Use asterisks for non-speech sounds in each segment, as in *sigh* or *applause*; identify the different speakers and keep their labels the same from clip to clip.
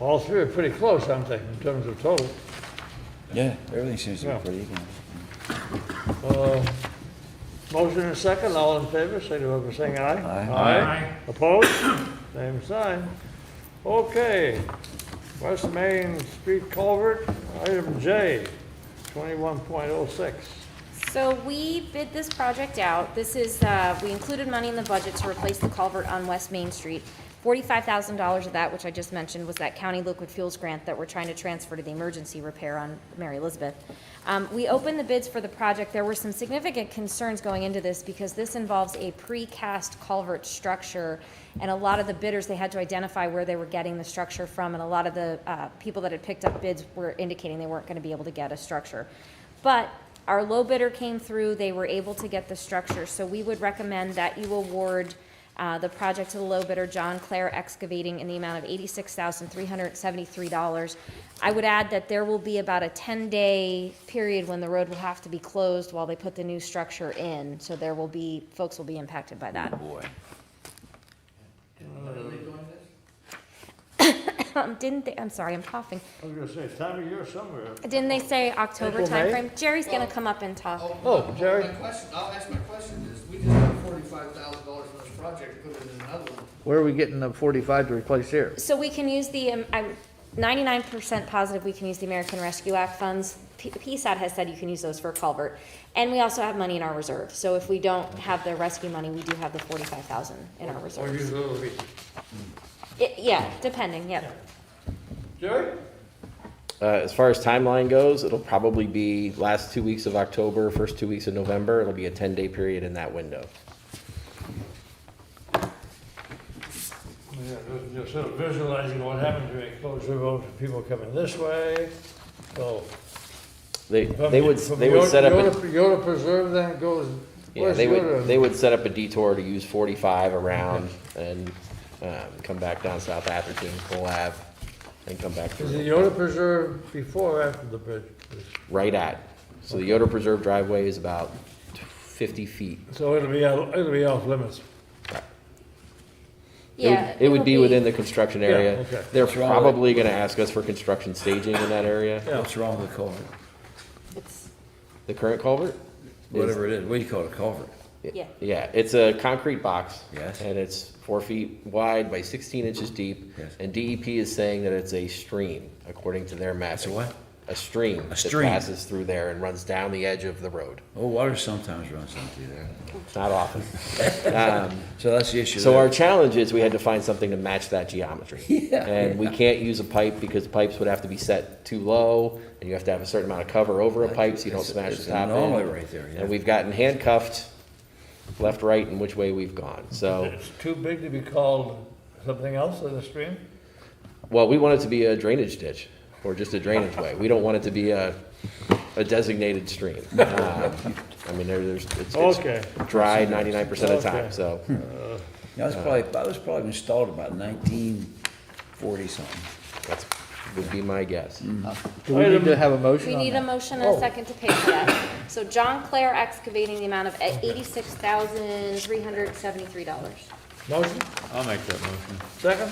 Speaker 1: All three are pretty close, I'm thinking, in terms of total.
Speaker 2: Yeah, everything seems to
Speaker 1: Yeah.
Speaker 2: be pretty even.
Speaker 1: Uh, Motion and second, all in favor, signify by saying aye.
Speaker 2: Aye.
Speaker 1: Opposed? Same sign. Okay, West Main Street Culvert, item J, 21.06.
Speaker 3: So we bid this project out. This is, uh, we included money in the budget to replace the culvert on West Main Street. Forty-five thousand dollars of that, which I just mentioned, was that county liquid fuels grant that we're trying to transfer to the emergency repair on Mary Elizabeth. Um, We opened the bids for the project. There were some significant concerns going into this because this involves a precast culvert structure. And a lot of the bidders, they had to identify where they were getting the structure from. And a lot of the uh, people that had picked up bids were indicating they weren't going to be able to get a structure. But our low bidder came through, they were able to get the structure, so we would recommend that you award uh, the project to the low bidder, John Clare Excavating, in the amount of eighty-six thousand, three hundred and seventy-three dollars. I would add that there will be about a ten-day period when the road will have to be closed while they put the new structure in, so there will be, folks will be impacted by that.
Speaker 2: Boy.
Speaker 3: Um, *coughs* Didn't they, I'm sorry, I'm coughing.
Speaker 1: I was gonna say, time of year somewhere.
Speaker 3: Didn't they say October
Speaker 1: April, May?
Speaker 3: timeframe? Jerry's gonna come up and talk.
Speaker 1: Oh, Jerry.
Speaker 4: My question, I'll ask my question is, we just got forty-five thousand dollars on this project, put it in another one.
Speaker 5: Where are we getting the forty-five to replace here?
Speaker 3: So we can use the, um, I'm ninety-nine percent positive we can use the American Rescue Act funds. P- PSAT has said you can use those for a culvert. And we also have money in our reserve, so if we don't have the rescue money, we do have the forty-five thousand in our
Speaker 1: Or
Speaker 3: reserve.
Speaker 1: use a little bit.
Speaker 3: Yeah, depending, yep.
Speaker 1: Jerry?
Speaker 6: Uh, as far as timeline goes, it'll probably be last two weeks of October, first two weeks of November. It'll be a ten-day period in that window.
Speaker 1: Yeah, just- just sort of visualizing what happened to a closed road, people coming this way, so.
Speaker 6: They,
Speaker 1: From
Speaker 6: they would,
Speaker 1: from
Speaker 6: they would
Speaker 1: Yoda-
Speaker 6: set up, a-
Speaker 1: Yoda Yoda Preserve then goes,
Speaker 6: yeah,
Speaker 1: where's
Speaker 6: they would, they
Speaker 1: Yoda?
Speaker 6: would set up a detour to use forty-five around
Speaker 1: Mm-hmm.
Speaker 6: and, um, come back down South Atherton, Cole Ave, and come back
Speaker 1: Is the
Speaker 6: through,
Speaker 1: Yoda Preserve before or after the bridge?
Speaker 6: right at. So the Yoder Preserve driveway is about fifty feet.
Speaker 1: So it'll be, out- it'll be off limits.
Speaker 6: It would-
Speaker 3: Yeah.
Speaker 6: It would be within the construction area.
Speaker 1: okay.
Speaker 6: They're
Speaker 2: What's wrong with it?
Speaker 6: probably gonna ask us for construction staging in that area.
Speaker 1: Yeah.
Speaker 2: What's wrong with the culvert?
Speaker 3: It's-
Speaker 6: The current culvert? is
Speaker 2: Whatever it is, what do you call it, a culvert?
Speaker 3: Yeah.
Speaker 6: Yeah, it's a concrete box.
Speaker 2: Yes.
Speaker 6: And it's four feet wide by sixteen inches deep.
Speaker 2: Yes.
Speaker 6: And DEP is saying that it's a stream, according to their mapping.
Speaker 2: It's a what?
Speaker 6: A stream.
Speaker 2: stream.
Speaker 6: That passes through there and runs down the edge of the road.
Speaker 2: Oh, water sometimes runs down through there.
Speaker 6: Not often.
Speaker 2: So that's the issue
Speaker 6: So our
Speaker 2: there.
Speaker 6: challenge is we had to find something to match that geometry.
Speaker 2: *laughs* Yeah.
Speaker 6: And we can't use a pipe because pipes would have to be set too low and you have to have a certain amount of cover over a pipe so you don't
Speaker 2: It's-
Speaker 6: smash
Speaker 2: it's
Speaker 6: the
Speaker 2: an
Speaker 6: top end.
Speaker 2: anomaly right there, yeah.
Speaker 6: And we've gotten handcuffed left, right, and which way we've gone.
Speaker 2: *laughs*
Speaker 6: So,
Speaker 1: It's too big to be called something else in the stream?
Speaker 6: well, we want it to be a drainage ditch or just a drainage way. We don't want it to be a, a
Speaker 1: *laughs*
Speaker 6: designated stream. Um, I mean, there- there's, it's,
Speaker 1: Okay.
Speaker 6: it's dry ninety-nine percent of the
Speaker 1: Okay.
Speaker 6: time, so.
Speaker 2: That was probably, that was probably installed about nineteen forty something.
Speaker 6: That's, would be my guess.
Speaker 5: Do we need to have a motion
Speaker 3: We
Speaker 5: on
Speaker 3: need a
Speaker 5: that?
Speaker 3: motion
Speaker 6: Oh.
Speaker 3: and a second to pay for that. So John Clare Excavating, the amount of eighty-six thousand, three hundred and seventy-three dollars.
Speaker 1: Motion?
Speaker 7: I'll make that motion.
Speaker 1: Second?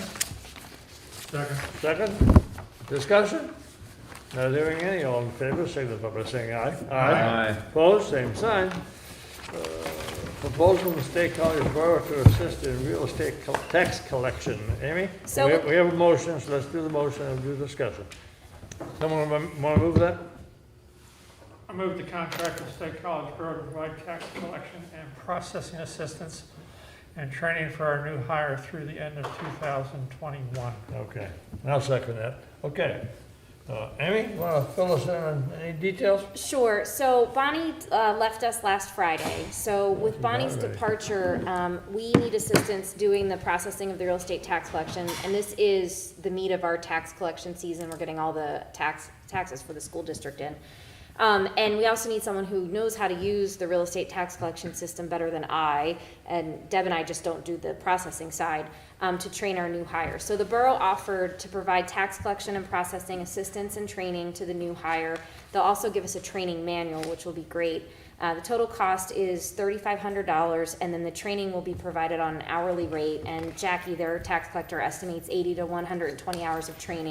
Speaker 1: Second. Second? Discussion? Not hearing any, all in favor, signify by saying aye.
Speaker 7: Aye.
Speaker 1: Opposed, same sign. Uh, Proposal from State College Borough to assist in real estate col- tax collection. Amy?
Speaker 3: So-
Speaker 1: We have- We have a motion, so let's do the motion and do discussion. Someone want to move that?
Speaker 8: I move the contract with State College Borough to provide tax collection and processing assistance and training for our new hire through the end of 2021.
Speaker 1: Okay, I'll second that. Okay. Uh, Amy, want to fill us in on any details?
Speaker 3: Sure. So Bonnie uh, left us last Friday. So with Bonnie's
Speaker 1: Friday.
Speaker 3: departure, um, we need assistance doing the processing of the real estate tax collection. And this is the meat of our tax collection season. We're getting all the tax, taxes for the school district in. Um, and we also need someone who knows how to use the real estate tax collection system better than I, and Deb and I just don't do the processing side, um, to train our new hire. So the borough offered to provide tax collection and processing assistance and training to the new hire. They'll also give us a training manual, which will be great. Uh, the total cost is thirty-five hundred dollars, and then the training will be provided on an hourly rate. And Jackie, their tax collector, estimates eighty to one hundred and twenty hours of training.